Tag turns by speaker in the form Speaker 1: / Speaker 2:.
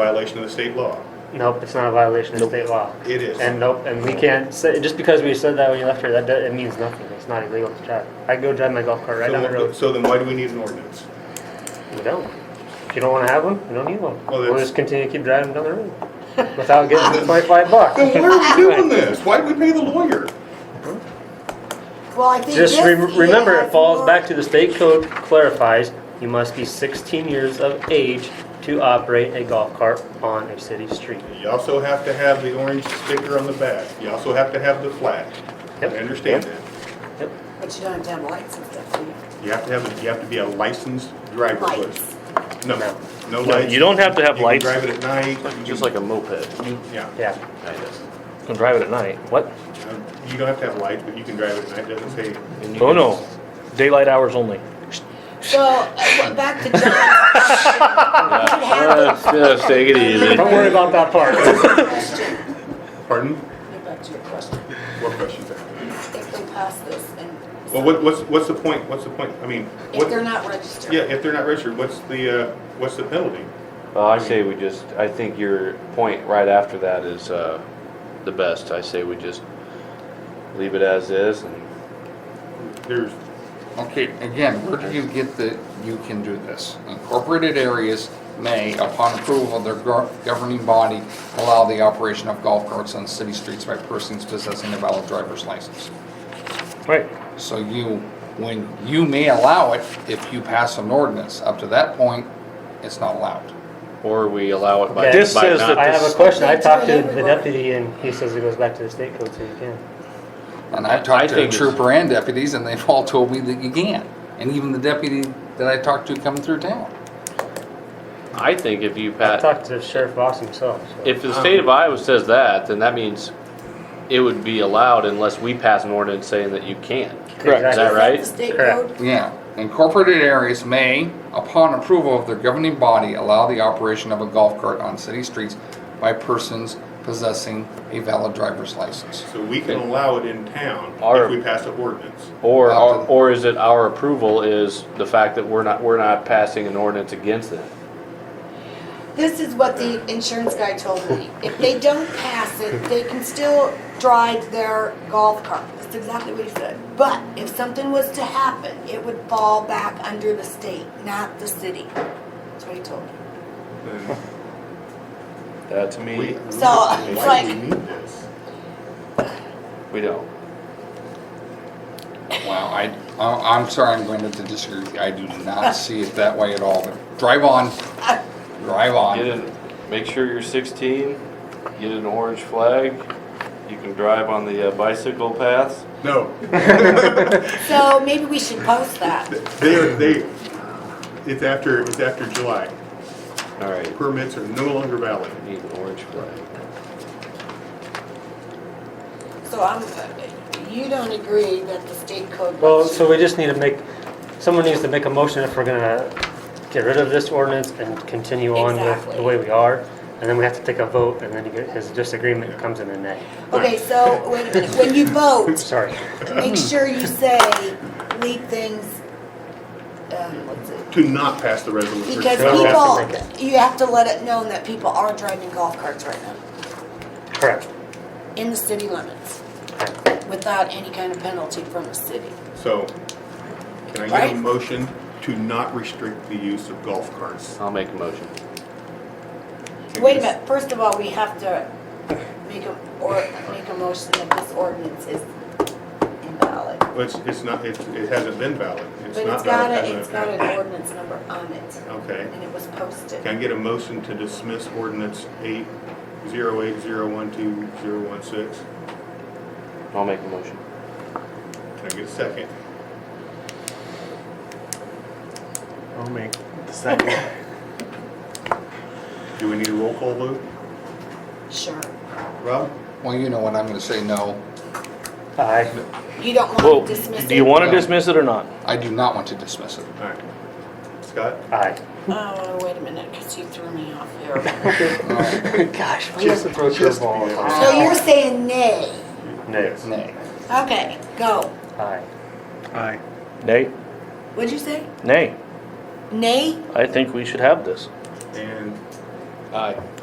Speaker 1: violation of the state law.
Speaker 2: Nope, it's not a violation of state law.
Speaker 1: It is.
Speaker 2: And nope, and we can't say, just because we said that when you left here, that, do- it means nothing. It's not illegal to drive. I go drive my golf cart right
Speaker 1: So
Speaker 2: down the
Speaker 1: then-
Speaker 2: road.
Speaker 1: So then why do we need an ordinance?
Speaker 2: We don't. If you don't wanna have one, you don't need one.
Speaker 1: Well,
Speaker 2: We'll
Speaker 1: that's-
Speaker 2: just continue to keep driving down the road without getting the twenty-five bucks.
Speaker 1: Then why are we doing this? Why'd we pay the lawyer?
Speaker 3: Well, I think
Speaker 2: Just
Speaker 3: this
Speaker 2: re-
Speaker 3: year
Speaker 2: remember, it
Speaker 3: has
Speaker 2: falls
Speaker 3: more-
Speaker 2: back to the state code clarifies, you must be sixteen years of age to operate a golf cart on a city street.
Speaker 1: You also have to have the orange sticker on the back. You also have to have the flag. I
Speaker 2: Yep.
Speaker 1: understand
Speaker 2: Yep.
Speaker 1: that.
Speaker 2: Yep.
Speaker 3: But you don't have to have lights and stuff, do you?
Speaker 1: You have to have, you have to be a licensed driver.
Speaker 3: Lights.
Speaker 1: Liz. No, no
Speaker 4: No,
Speaker 1: lights.
Speaker 4: you don't have to have
Speaker 1: You can
Speaker 4: lights.
Speaker 1: drive it at night. you
Speaker 4: Just like
Speaker 1: can-
Speaker 4: a moped.
Speaker 1: Yeah.
Speaker 2: Yeah.
Speaker 4: You can drive it at night. What?
Speaker 1: Um, You don't have to have lights, but you can drive it at night. Doesn't say,
Speaker 4: Oh no, daylight hours only.
Speaker 3: So, uh, well, back to John's question. You have the
Speaker 5: Just take it easy.
Speaker 2: Don't worry about that part.
Speaker 3: question.
Speaker 1: pardon?
Speaker 3: Get back to your question.
Speaker 1: What question's that?
Speaker 3: If they pass this and.
Speaker 1: Well, what, what's, what's the point? What's the point? I mean,
Speaker 3: If
Speaker 1: what,
Speaker 3: they're not registered.
Speaker 1: yeah, if they're not registered, what's the, uh, what's the penalty?
Speaker 5: Well, I say we just, I think your point right after that is, uh, the best. I say we just leave it as is and
Speaker 1: There's,
Speaker 6: Okay, again, where do you get the, you can do this? Incorporated areas may, upon approval of their gov- governing body, allow the operation of golf carts on city streets by persons possessing a valid driver's license.
Speaker 4: Right.
Speaker 6: So you, when, you may allow it if you pass an ordinance. Up to that point, it's not allowed.
Speaker 5: Or we allow it by,
Speaker 2: Okay. This
Speaker 5: by
Speaker 4: says
Speaker 5: not.
Speaker 2: I have a question. I
Speaker 3: They
Speaker 2: talked
Speaker 3: do
Speaker 2: to
Speaker 3: it
Speaker 2: the
Speaker 3: everywhere.
Speaker 2: deputy and he says it goes back to the state code, so you can.
Speaker 6: And I've
Speaker 5: I
Speaker 6: talked to
Speaker 5: think it's-
Speaker 6: trooper and deputies, and they've all told me that you can't. And even the deputy that I talked to coming through town.
Speaker 5: I think if you
Speaker 2: I
Speaker 5: pat,
Speaker 2: talked to Sheriff Voss himself, so.
Speaker 5: Uh, if the state of Iowa says that, then that means it would be allowed unless we pass an ordinance saying that you can.
Speaker 2: Correct.
Speaker 5: Is that right?
Speaker 3: The state
Speaker 2: Correct.
Speaker 3: code,
Speaker 6: Yeah, incorporated areas may, upon approval of their governing body, allow the operation of a golf cart on city streets by persons possessing a valid driver's license.
Speaker 1: so we can allow it in town
Speaker 5: Our-
Speaker 1: if we pass an ordinance.
Speaker 5: Or,
Speaker 6: Often.
Speaker 5: or is it our approval is the fact that we're not, we're not passing an ordinance against it?
Speaker 3: this is what the insurance guy told me. If they don't pass it, they can still drive their golf cart. That's exactly what he said. But if something was to happen, it would fall back under the state, not the city. That's what he told me.
Speaker 1: Then
Speaker 5: That to
Speaker 1: we-
Speaker 5: me,
Speaker 3: So, it's
Speaker 1: Why do we
Speaker 3: like-
Speaker 1: need this?
Speaker 5: we don't.
Speaker 6: Well, I, I- I'm sorry, I'm going to disagree. with you. I do not see it that way at all. Drive on, drive
Speaker 5: Get
Speaker 6: on.
Speaker 5: in, make sure you're 16, get an orange flag, you can drive on the uh, bicycle paths.
Speaker 1: No,
Speaker 3: So maybe we should post that.
Speaker 1: they are, they, it's after, it's after July.
Speaker 5: All right,
Speaker 1: Permits are no longer valid.
Speaker 5: need an orange flag.
Speaker 3: So I'm, you don't agree that the state code.
Speaker 2: Well, so we just need to make, someone needs to make a motion if we're gonna get rid of this ordinance and continue on with the
Speaker 3: Exactly.
Speaker 2: way we are. And then we have to take a vote and then he get- his disagreement comes in the neck.
Speaker 3: Okay, so wait a minute, when you vote,
Speaker 2: Sorry.
Speaker 3: make sure you say, leave things, um, what's it?
Speaker 1: To not pass the resolution.
Speaker 3: Because
Speaker 2: Sure. We have to
Speaker 3: people, you have to let it known that people are driving golf carts right now,
Speaker 2: Correct.
Speaker 3: in the city limits, without any kind of penalty from the city.
Speaker 1: So, can I get
Speaker 3: Right.
Speaker 1: a motion to not restrict the use of golf carts?
Speaker 5: I'll make a motion.
Speaker 3: Wait a minute, first of all, we have to make a, or make a motion that this ordinance is invalid.
Speaker 1: Well, It's, it's not, it's- it hasn't been valid. It's
Speaker 3: But it's
Speaker 1: not
Speaker 3: got
Speaker 1: valid.
Speaker 3: a,
Speaker 1: hasn't
Speaker 3: it's
Speaker 1: it?
Speaker 3: got an ordinance number on it,
Speaker 1: Okay.
Speaker 3: and it was posted.
Speaker 1: Can I get a motion to dismiss ordinance eight zero eight zero one two zero one six?
Speaker 5: I'll make a motion.
Speaker 1: Can I get a second?
Speaker 7: I'll make the second.
Speaker 1: Do we need a roll call vote?
Speaker 3: Sure.
Speaker 1: Rob?
Speaker 6: Well, you know what, I'm going to say no.
Speaker 2: Aye.
Speaker 3: You don't
Speaker 4: Well,
Speaker 3: want to dismiss it?
Speaker 4: do you want to
Speaker 6: No.
Speaker 4: dismiss it or not?
Speaker 6: I do not want to dismiss it.
Speaker 1: All right. Scott?
Speaker 2: Aye.
Speaker 3: Oh, wait a minute, because you threw me off here.
Speaker 2: Gosh, we just approached the ball.
Speaker 3: So you're saying nay?
Speaker 2: Nay.
Speaker 6: Nay.
Speaker 3: Okay, go.
Speaker 2: Aye.
Speaker 7: Aye.
Speaker 4: Nay,
Speaker 3: What'd you say?
Speaker 4: nay.
Speaker 3: Nay?
Speaker 4: I think we should have this.
Speaker 1: And
Speaker 5: Aye.